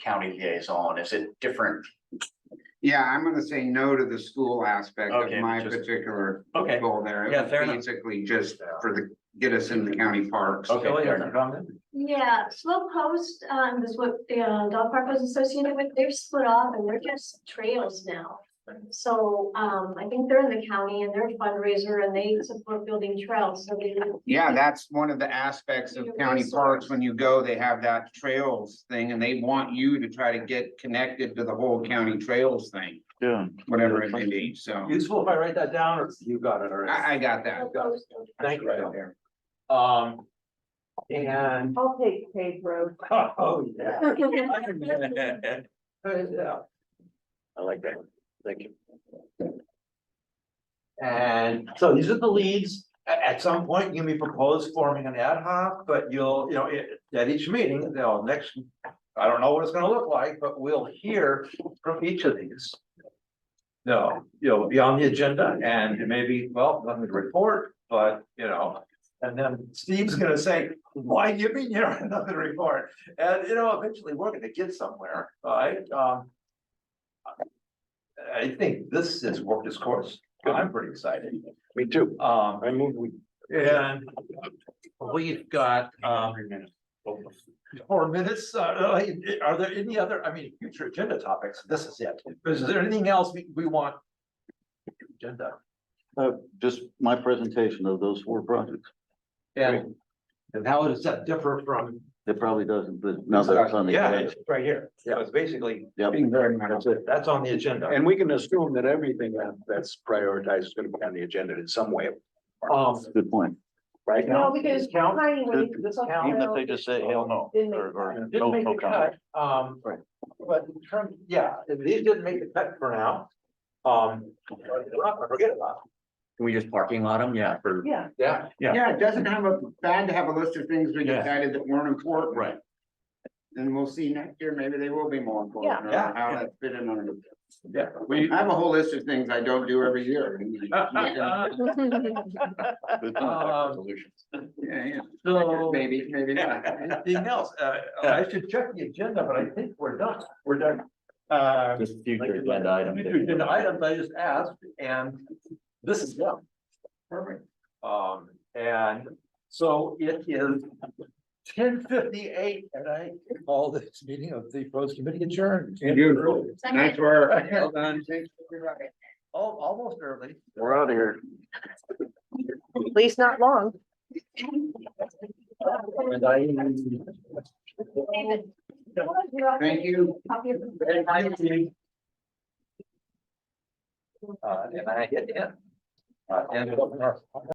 county liaison? Is it different? Yeah, I'm gonna say no to the school aspect of Okay, my just- particular Okay. goal there. It Yeah, was fair enough. Basically just for the, get us in the county parks. Okay, fair enough. Yeah, Slow Post, um, is what the uh, dog park was associated with. They've split off and they're just trails now. So, um, I think they're in the county and they're a fundraiser and they support building trails, so they. Yeah, that's one of the aspects of Your county resource. parks. When you go, they have that trails thing and they want you to try to get connected to the whole county trails thing, Yeah. whatever it may be. So Useful if I write that down, or you got it already? I, I got that. Slow Post. Thank Right you. there. Um. And, I'll take Cave Road. oh, yeah. Uh, yeah. I like that. Thank you. And so these are the leads. A- At, some point, you may propose forming an ad hoc, but you'll, you know, it- at each meeting, they'll next. I don't know what it's gonna look like, but we'll hear from each of these. No, you'll be on the agenda and maybe, well, nothing to report, but you know. And then Steve's gonna say, why do you mean you don't have nothing to report? And you know, eventually, we're gonna get somewhere, right? Um. I think this has worked its course. I'm pretty excited. Me too. Um, I move we. and we've got, um, four minutes. Uh, are there any other, I mean, future agenda topics? This is it. Is there anything else we, we want? Agenda. Uh, just my presentation of those four projects. And, and how does that differ from? It probably doesn't, but now that it's on the. Yeah, edge. it's right here. Yeah, it's basically, Yep. very That's it. that's on the agenda. And we can assume that everything that- that's prioritized is gonna be on the agenda in some way, Um, Good point. right now. No, because Count. Highway, this Even if they just say hell no Didn't make or, or Didn't no, make no the comment. cut, um, Right. but in terms, yeah, these didn't make the cut for now. Um, we're not gonna forget about, Can we just parking lot them? Yeah, for. Yeah, it. yeah, Yeah. Yeah, it doesn't have a, bad to have a list of things we Yeah. decided that weren't important. Right. And we'll see next year, maybe they will be more important. or Yeah. How that fit in under. yeah. We have a whole list of things I don't do every year. Yeah, Uh, Good Um, point. Resolutions. yeah. So, Maybe, maybe not. anything else, uh, I should check the agenda, but I think we're done, we're done. Uh, Just future agenda items. future agenda items I just asked, and this is them. Perfect. Um, and so it is ten fifty-eight, and I call this meeting of the Rose Committee adjourned. Beautiful. Nice work. Well done. Thanks. Al- almost early. We're out of here. at least not long. And I. David. Thank you. Copy of- Uh, and I hit end. Uh, and.